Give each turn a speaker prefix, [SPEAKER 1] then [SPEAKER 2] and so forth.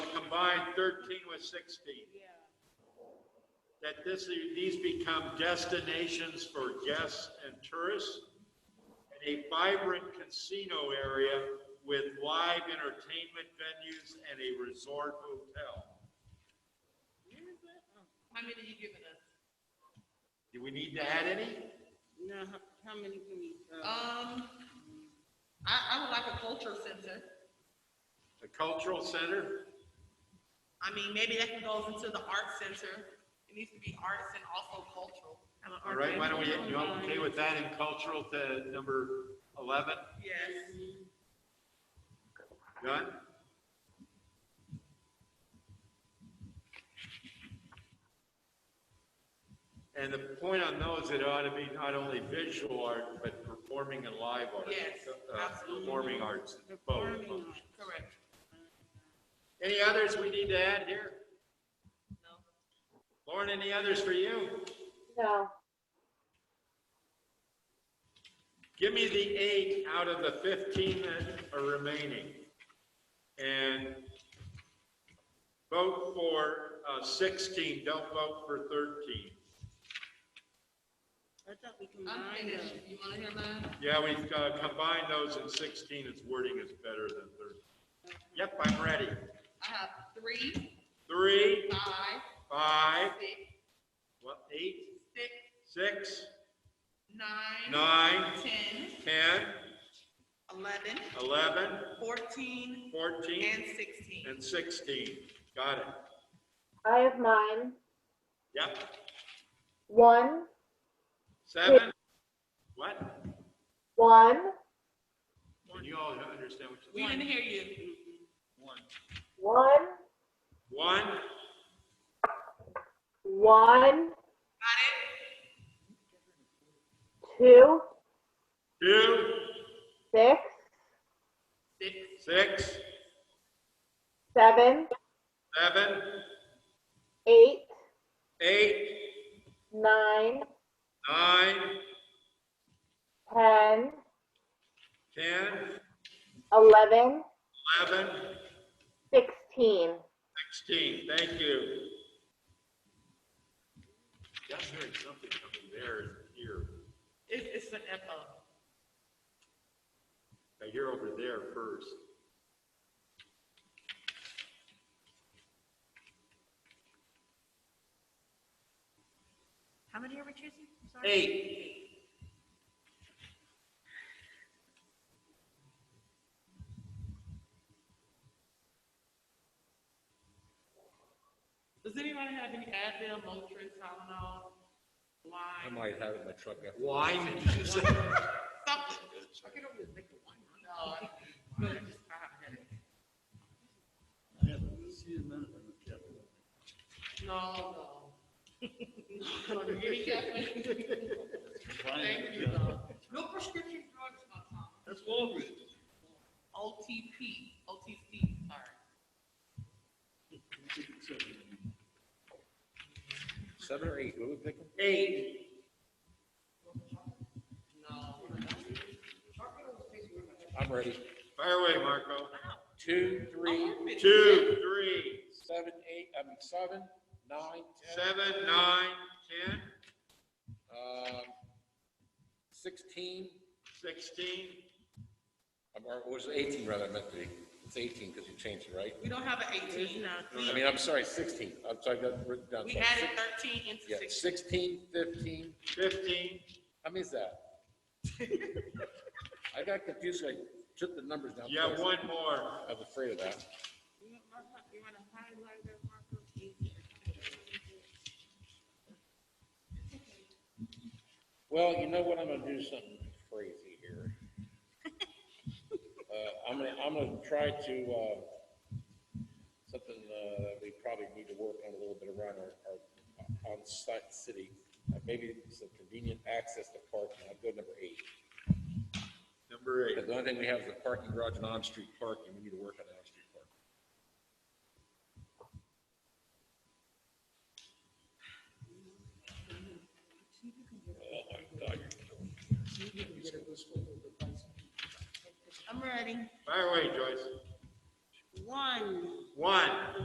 [SPEAKER 1] combine thirteen with sixteen. That this, these become destinations for guests and tourists and a vibrant casino area with live entertainment venues and a resort hotel.
[SPEAKER 2] Uh,
[SPEAKER 3] How many you giving us?
[SPEAKER 1] Do we need to add any?
[SPEAKER 2] Now, how, how many can we, uh,
[SPEAKER 3] Um, I, I would like a culture center.
[SPEAKER 1] The cultural center?
[SPEAKER 3] I mean, maybe that can go into the art center. It needs to be arts and also cultural.
[SPEAKER 2] have an
[SPEAKER 1] All right, why don't we,
[SPEAKER 2] organization
[SPEAKER 1] you all okay
[SPEAKER 2] going?
[SPEAKER 1] with that in cultural to number 11?
[SPEAKER 3] Yes.
[SPEAKER 1] Done? And the point on those, it ought to be not only visual art, but performing and live art.
[SPEAKER 3] Yes,
[SPEAKER 1] Uh,
[SPEAKER 3] absolutely.
[SPEAKER 1] Performing arts, both.
[SPEAKER 2] Performing arts.
[SPEAKER 3] Correct.
[SPEAKER 1] Any others we need to add here?
[SPEAKER 3] No.
[SPEAKER 1] Lauren, any others for you?
[SPEAKER 4] No.
[SPEAKER 1] Give me the eight out of the 15 that are remaining. And vote for uh, 16, don't vote for 13.
[SPEAKER 2] I thought we
[SPEAKER 3] I'm
[SPEAKER 2] combined
[SPEAKER 3] finished.
[SPEAKER 2] them.
[SPEAKER 3] You wanna hear mine?
[SPEAKER 1] Yeah, we've uh, combined those in 16, its wording is better than 13. Yep, I'm ready.
[SPEAKER 3] I have three,
[SPEAKER 1] Three,
[SPEAKER 3] five,
[SPEAKER 1] five,
[SPEAKER 3] six,
[SPEAKER 1] what, eight,
[SPEAKER 3] six,
[SPEAKER 1] six,
[SPEAKER 3] nine,
[SPEAKER 1] nine,
[SPEAKER 3] ten,
[SPEAKER 1] 10,
[SPEAKER 3] eleven,
[SPEAKER 1] 11,
[SPEAKER 3] fourteen,
[SPEAKER 1] 14,
[SPEAKER 3] and sixteen.
[SPEAKER 1] and 16. Got it.
[SPEAKER 4] I have mine.
[SPEAKER 1] Yep,
[SPEAKER 4] One,
[SPEAKER 1] seven, what?
[SPEAKER 4] one,
[SPEAKER 1] Can you all understand what
[SPEAKER 3] We
[SPEAKER 1] you're
[SPEAKER 3] didn't
[SPEAKER 1] saying?
[SPEAKER 3] hear you.
[SPEAKER 1] One.
[SPEAKER 4] one,
[SPEAKER 1] One,
[SPEAKER 4] one,
[SPEAKER 3] Got it?
[SPEAKER 4] two,
[SPEAKER 1] two,
[SPEAKER 4] six,
[SPEAKER 3] Six,
[SPEAKER 1] six,
[SPEAKER 4] seven,
[SPEAKER 1] seven,
[SPEAKER 4] eight,
[SPEAKER 1] eight,
[SPEAKER 4] nine,
[SPEAKER 1] nine,
[SPEAKER 4] ten,
[SPEAKER 1] 10,
[SPEAKER 4] eleven,
[SPEAKER 1] 11,
[SPEAKER 4] sixteen.
[SPEAKER 1] 16, thank you. Yeah, I'm hearing something coming there and here.
[SPEAKER 3] it's, it's an echo.
[SPEAKER 1] I hear over there first.
[SPEAKER 3] How many are we choosing? I'm sorry.
[SPEAKER 1] Eight.
[SPEAKER 3] Does anybody have any Advil, Motrin, Tylenol,
[SPEAKER 5] I
[SPEAKER 3] Lyme?
[SPEAKER 5] might have it in my truck. after.
[SPEAKER 1] Wine, did you say?
[SPEAKER 3] Something. I can only think of one. No, I no, I just I haven't had it. No, no. Don't give me caffeine. Thank you, no. No prescription drugs, my Tom.
[SPEAKER 6] That's Walgreens.
[SPEAKER 3] OTP, OTC, sorry.
[SPEAKER 5] Seven or eight, what do we pick?
[SPEAKER 1] Eight.
[SPEAKER 3] No.
[SPEAKER 5] I'm ready.
[SPEAKER 1] Fire away, Marco.
[SPEAKER 5] Two, three,
[SPEAKER 1] Two, three,
[SPEAKER 5] seven, eight, I mean, seven, nine, ten.
[SPEAKER 1] seven, nine, 10,
[SPEAKER 5] Um, sixteen,
[SPEAKER 1] 16.
[SPEAKER 5] I'm- or was it eighteen rather, I meant to be. It's eighteen because you changed it, right?
[SPEAKER 3] We don't have an eighteen. uh,
[SPEAKER 5] I mean, I'm sorry, sixteen. I'm sorry, I got it written down.
[SPEAKER 3] We added thirteen into
[SPEAKER 5] Yeah,
[SPEAKER 3] sixteen.
[SPEAKER 5] sixteen, fifteen,
[SPEAKER 1] 15,
[SPEAKER 5] how many is that? I got confused. I took the numbers down.
[SPEAKER 1] you have
[SPEAKER 5] twice.
[SPEAKER 1] one more.
[SPEAKER 5] I was afraid of that.
[SPEAKER 2] You wanna mark- you wanna highlight that marker? Yes.
[SPEAKER 5] Well, you know what, I'm gonna do something crazy here. Uh, I'm gonna, I'm gonna try to, uh, something, uh, that we probably need to work on a little bit around our, our on-site city. Uh, Maybe some convenient access to parking, I'll go number eight.
[SPEAKER 1] Number eight.
[SPEAKER 5] Because the only thing we have is a parking garage and on-street parking, we need to work on on-street parking. Oh my God, you're killing me.
[SPEAKER 2] I'm ready.
[SPEAKER 1] Fire away, Joyce.
[SPEAKER 2] One.
[SPEAKER 1] One.